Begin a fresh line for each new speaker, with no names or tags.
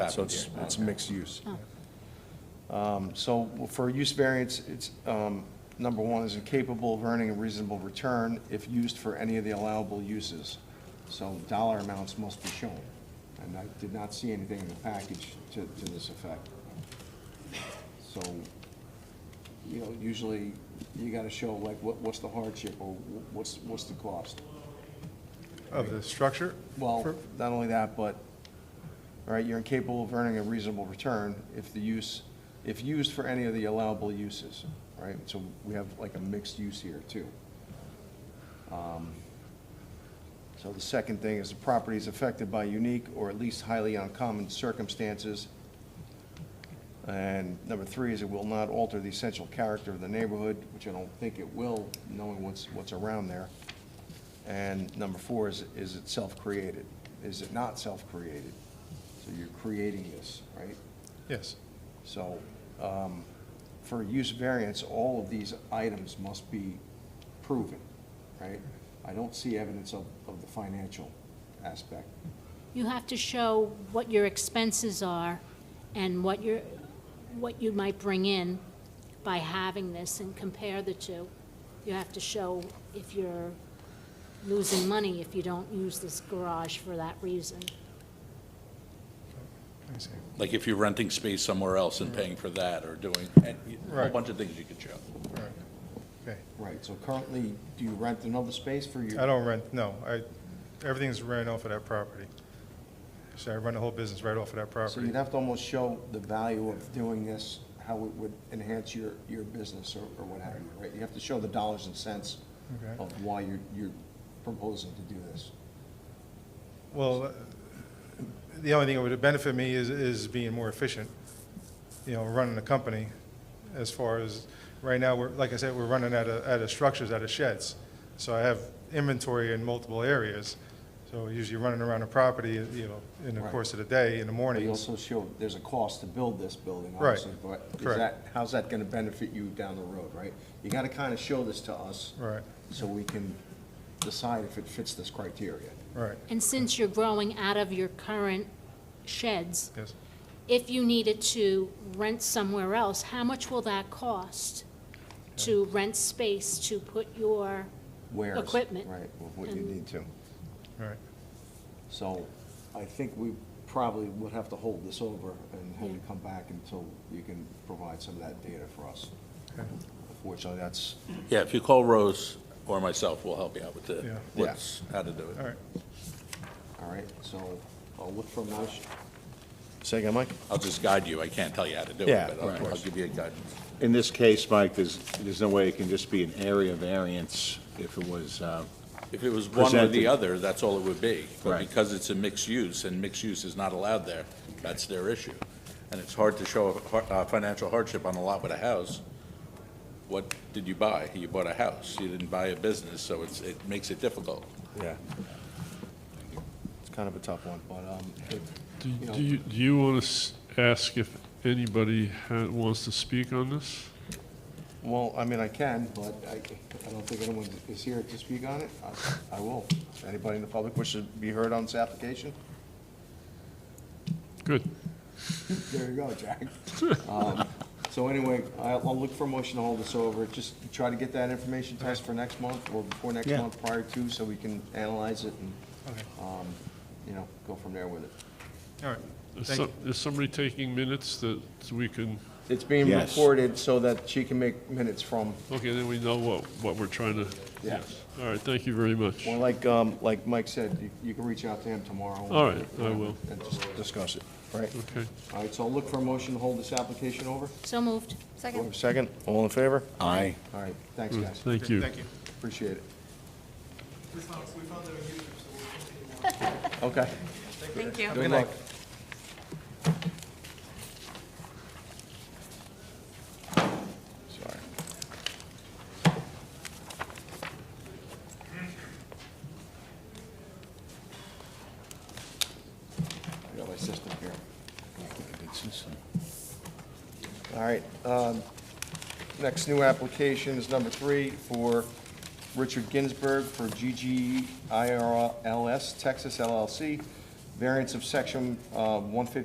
so it's, it's mixed use. Um, So for a use variance, it's, um, number one, is incapable of earning a reasonable return if used for any of the allowable uses. So dollar amounts must be shown, and I did not see anything in the package to, to this effect. So, you know, usually you gotta show like, what, what's the hardship, or wh- what's, what's the cost?
Of the structure?
Well,
For-
not only that, but, all right, you're incapable of earning a reasonable return if the use, if used for any of the allowable uses, right? So we have like a mixed use here, too. Um, So the second thing is the property is affected by unique or at least highly uncommon circumstances. And number three is it will not alter the essential character of the neighborhood, which I don't think it will, knowing what's, what's around there. And number four is, is it self-created? Is it not self-created? So you're creating this, right?
Yes.
So um, for use variance, all of these items must be proven, right? I don't see evidence of, of the financial aspect.
You have to show what your expenses are and what your, what you might bring in by having this and compare the two. You have to show if you're losing money if you don't use this garage for that reason.
I see.
Like if you're renting space somewhere else and paying for that or doing, and a whole
Right.
bunch of things you could show.
All right. Okay.
Right, so currently, do you rent another space for your?
I don't rent, no, I, everything's rent off of that property. So I run the whole business right off of that
So
property.
you'd have to almost show the value of doing this, how it would enhance your, your business or, or what have you, right? You have to show the dollars and cents
Okay.
of why you're, you're proposing to do this.
Well, uh, the only thing that would benefit me is, is being more efficient, you know, running the company as far as, right now, we're, like I said, we're running out of, out of structures, out of sheds. So I have inventory in multiple areas, so usually running around the property, you know, in the
Right.
course of the day, in the
But you
mornings.
also show there's a cost to build this building,
Right.
obviously, but is
Correct.
that, how's that gonna benefit you down the road, right? You gotta kinda show this to us.
Right.
So we can decide if it fits this criteria.
Right,
And since you're growing out of your current sheds,
yes.
if you needed to rent somewhere else, how much will that cost to rent space to put your,
Where's,
Equipment.
Right, with what you
And-
need to.
All right,
So I think we probably would have to hold this over and have you come back until you can provide some of that data for us.
Okay.
Unfortunately, that's,
Yeah, if you call Rose or myself, we'll help you out with
Yeah.
the, what's, how to do
all
it.
right.
all right, so I'll look for a motion. Say again, Mike?
I'll just guide you. I can't tell you how to do it,
Yeah,
but
of
I'll- I'll
course.
give you a guidance.
In this case, Mike, there's, there's no way it can just be an area variance if it was, uh,
If it was one or
Presented.
the other, that's all it would be. But
Right.
because it's a mixed use, and mixed use is not allowed there, that's their issue. And it's hard to show a har- uh, financial hardship on a lot with a house. What did you buy? You bought a house, you didn't buy a business, so it's, it makes it difficult.
Yeah. It's kind of a tough one, but, um, it-
Do
you know-
do you, do you want to ask if anybody ha- wants to speak on this?
well, I mean, I can, but I, I don't think anyone is here to speak on it. I- I will. Anybody in the public wishes to be heard on this application?
Good.
There you go, Jack. Um, So anyway, I'll I'll look for a motion to hold this over, just try to get that information to us for next month or before next
Yeah.
month prior to, so we can analyze it and,
Okay.
um, you know, go from there with it.
All right,
Is
Thank
some- is somebody taking minutes that we can,
It's being
Yes.
recorded so that she can make minutes from,
okay, then we know what, what we're trying to,
Yeah.
yes. All right, thank you very much.
well, like, um, like Mike said, you- you can reach out to him tomorrow.
All right, I will.
And just discuss it, right?
Okay.
All right, so I'll look for a motion to hold this application over.
so moved?
Do I have a Second, all in favor?
I.
All right, thanks,
Mm,
guys,
Thank you.
thank you.
appreciate it.
We found, we found it on YouTube, so we'll continue on.
Okay.
Thank you.
Good luck. Sorry. I got my system here. All right, um, next new application is number three for Richard Ginsberg for GGIRLS Texas LLC, variance of section uh, 150